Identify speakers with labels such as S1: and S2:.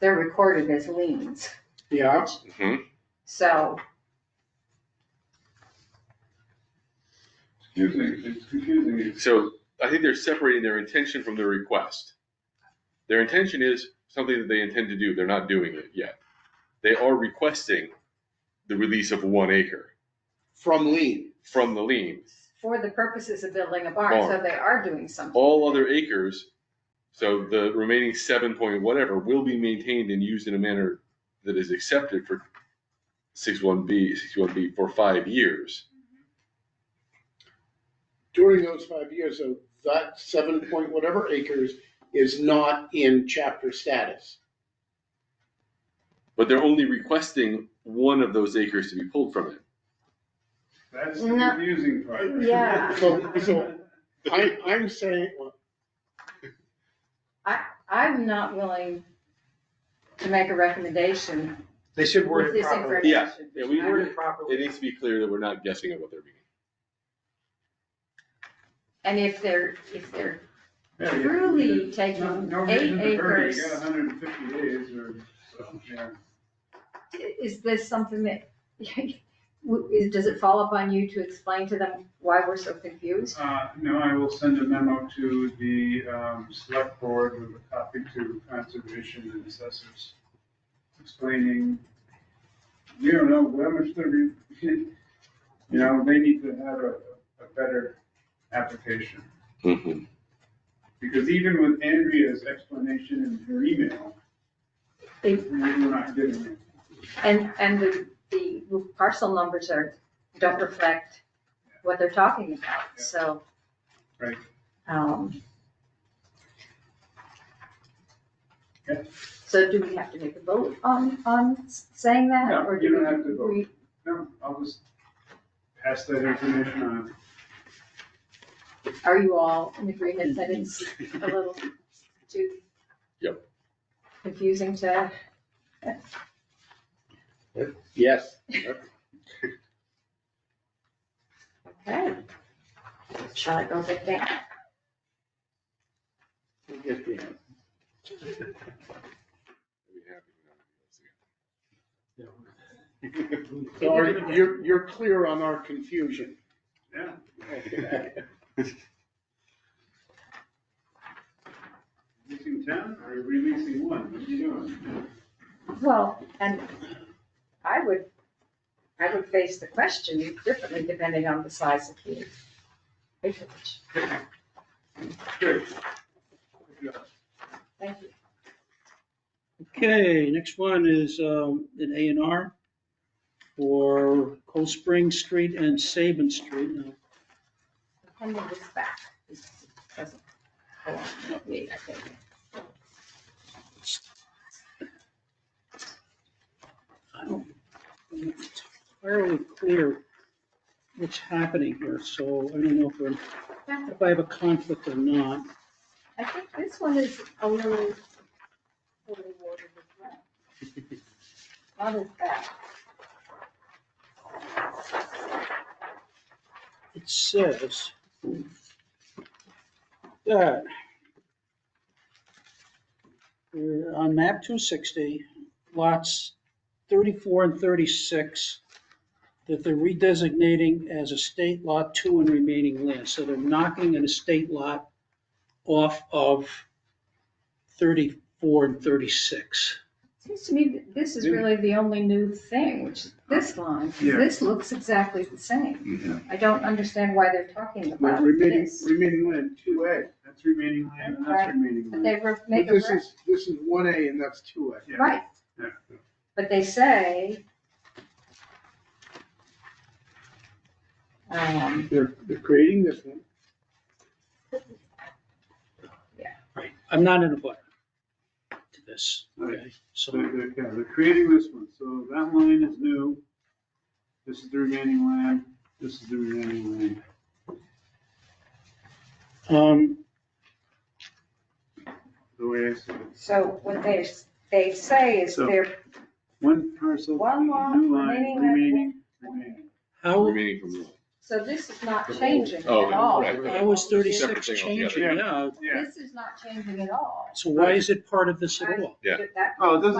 S1: they're recorded as liens,
S2: Yeah,
S3: Mhm.
S1: so.
S4: Confusing, it's confusing.
S3: So I think they're separating their intention from their request. Their intention is something that they intend to do. They're not doing it yet. They are requesting the release of one acre
S2: from lien.
S3: from the lien.
S1: For the purposes of building a barn, so
S3: Barn.
S1: they are doing something.
S3: All other acres, so the remaining seven point whatever, will be maintained and used in a manner that is accepted for six one B, six one B for five years.
S2: During those five years, so that seven point whatever acres is not in chapter status.
S3: But they're only requesting one of those acres to be pulled from it.
S4: That's the
S1: No.
S4: confusing part.
S1: Yeah.
S2: So- so- I, I'm saying,
S1: I'm not willing to make a recommendation
S5: They should
S1: with
S5: word it
S1: this
S5: properly.
S1: information.
S3: Yeah, we
S5: Word
S3: were,
S5: it properly.
S3: it needs to be clear that we're not guessing at what they're meaning.
S1: And if they're, if they're
S4: Yeah, yeah.
S1: truly
S4: No-
S1: taking
S4: no reason
S1: eight
S4: to hurry.
S1: acres,
S4: You got hundred and fifty days or, so, yeah.
S1: i- is this something that, w- is- does it fall upon you to explain to them why we're so confused?
S4: Uh, no, I will send a memo to the, um, select board with a copy to conservation and assessors explaining, we don't know how much they're, re- you know, they need to have a, a better application.
S3: Mhm.
S4: Because even with Andrea's explanation in her email,
S1: They-
S4: we're not getting it.
S1: And, and the, the parcel numbers are, don't reflect what they're talking about, so.
S4: Right.
S1: Um.
S4: Yeah.
S1: So do we have to make a vote on, on saying that,
S4: No,
S1: or
S4: you
S1: do we?
S4: don't have to vote.
S1: we-
S4: No, I'll just pass that information on.
S1: Are you all in agreement that it's a little too?
S3: Yep.
S1: Confusing to,
S2: yes,
S1: okay. Shall I go get that?
S2: we get the answer.
S3: I'd be happy to
S2: So are- you're, you're clear on our confusion.
S4: Yeah. Releasing ten or releasing one? What are you doing?
S1: Well, and I would, I would face the question differently depending on the size of the acreage.
S4: Good.
S1: Thank you.
S6: Okay, next one is um, an A and R for Cold Spring Street and Saban Street. Now,
S1: Handing this back. This doesn't belong to me, I think.
S6: I don't, I'm not entirely clear what's happening here, so I don't know if I'm, if I have a conflict or not.
S1: I think this one is a little, a little watered as well. Not as bad.
S6: It says that uh, on map 260, lots 34 and 36, that they're redesignating as estate lot two and remaining land. So they're knocking an estate lot off of 34 and 36.
S1: Seems to me that this is really the only new thing, which is this line. 'cause
S4: Yeah.
S1: This looks exactly the same.
S3: understand.
S1: I don't understand why they're talking
S2: Now,
S1: about
S2: Remaining,
S1: this.
S2: remaining land, two A.
S4: That's remaining land, and that's
S1: Right.
S4: remaining
S1: But
S4: land.
S1: they re-
S2: But
S1: make a,
S2: this
S1: re-
S2: is, this is one A and that's two A.
S4: Yeah.
S1: right,
S4: Yeah.
S1: but they say, um,
S2: They're, they're creating this one.
S6: Right. I'm not in a butter to this. Okay,
S4: So
S6: so,
S4: They're, they're- yeah, they're creating this one, so that line is new. This is the remaining land, this is the remaining land.
S6: um,
S4: The way I see it,
S1: so what they, they say is
S4: So-
S1: they're,
S4: one parcel,
S1: One lot,
S4: new line,
S1: remaining land,
S4: remaining, remaining.
S6: how,
S3: Remaining from the
S1: So this is not changing at
S3: Oh,
S1: all.
S3: right.
S6: That was
S3: Separate
S6: thirty-six
S3: thing
S6: changing, yeah.
S4: Yeah.
S1: This is not changing at all.
S6: So why is it part of this at all?
S3: Yeah.
S1: That-
S4: Oh, it doesn't